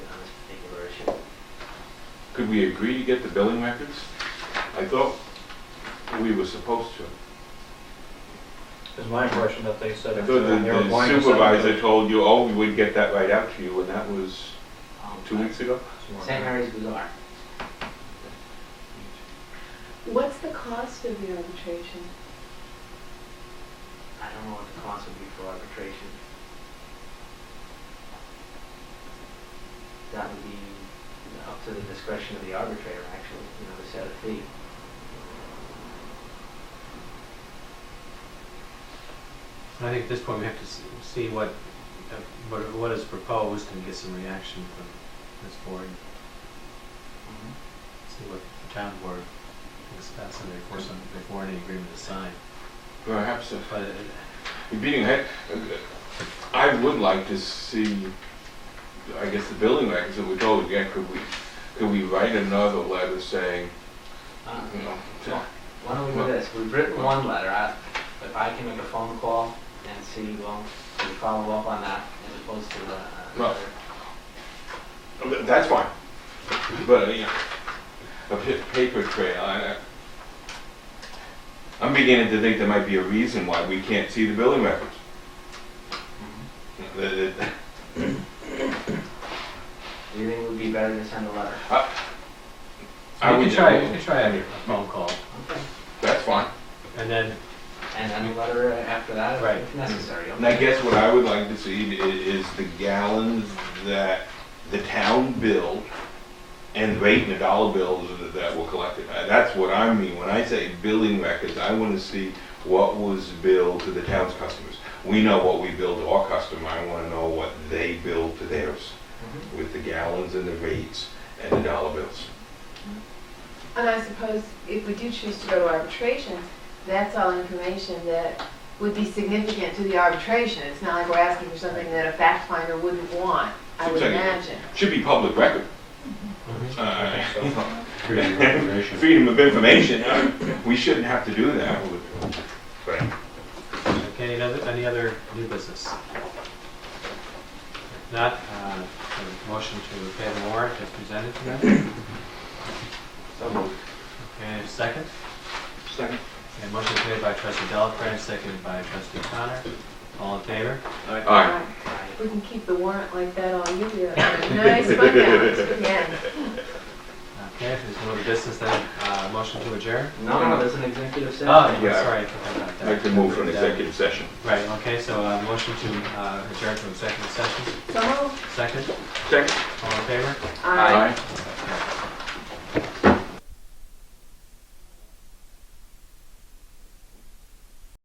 Could we agree to get the billing records? I thought we were supposed to. It's my impression that they said. I it thought was the on your the appointment. supervisor told you, oh, we would get that right out to you, and that was two weeks ago? St. Mary's Bazaar. What's the cost of the arbitration? I don't know what the cost would be for arbitration. That would be up to the discretion of the arbitrator, actually, you know, to set a fee. I think at this point, we have to s- see what, uh, what what is proposed and get some reaction from this board, Mm-hmm. see what the town board thinks about something before some, before any agreement is signed. Perhaps if But uh, Beating, I, I would like to see, I guess, the billing records that we told again, could we, could we write another letter saying, Uh, you know, to- Why don't we do this? We've written one letter. I- If I can make a phone call and see, well, can we follow up on that as opposed to the. uh, Well, that's fine. But, uh, you know, a pa- paper trail, I, I- I'm beginning to think there might be a reason why we can't see the billing records. That- that- Do you think it would be better to send a letter? I you would can try, you can try a phone call, Okay. That's fine. and then, And then a letter after that Right. if necessary. And I guess what I would like to see i- is the gallons that the town billed and the rate and the dollar bills that- that were collected. Uh, That's what I mean, when I say billing records, I wanna see what was billed to the town's customers. We know what we bill to our customer, I wanna know what they bill to theirs, Mhm. with the gallons and the rates and the dollar bills. And I suppose if we do choose to go to arbitration, that's all information that would be significant to the arbitration. It's not like we're asking for something that a fact finder wouldn't want, I would Exactly. imagine. Should be public record. Uh, create a recommendation. Freedom of information, uh, we shouldn't have to do that. But Okay, any other, any other new business? If not, uh, a motion to pay the warrant as presented tonight. So moved. Okay, second? Second. And motion is made by trustee Delacorte, seconded by trustee Connor. All in favor? All right. Right. We can keep the warrant like that all year. Nice fun hours again. Okay, if there's no other business, then, uh, motion to adjourn? No, no, there's an executive session. Oh, yeah, Yeah. sorry, I forgot about I'd like that. to move from executive session. Right, okay, so, uh, motion to, uh, adjourn from executive session, So, second, Second. all in favor? I. Aye.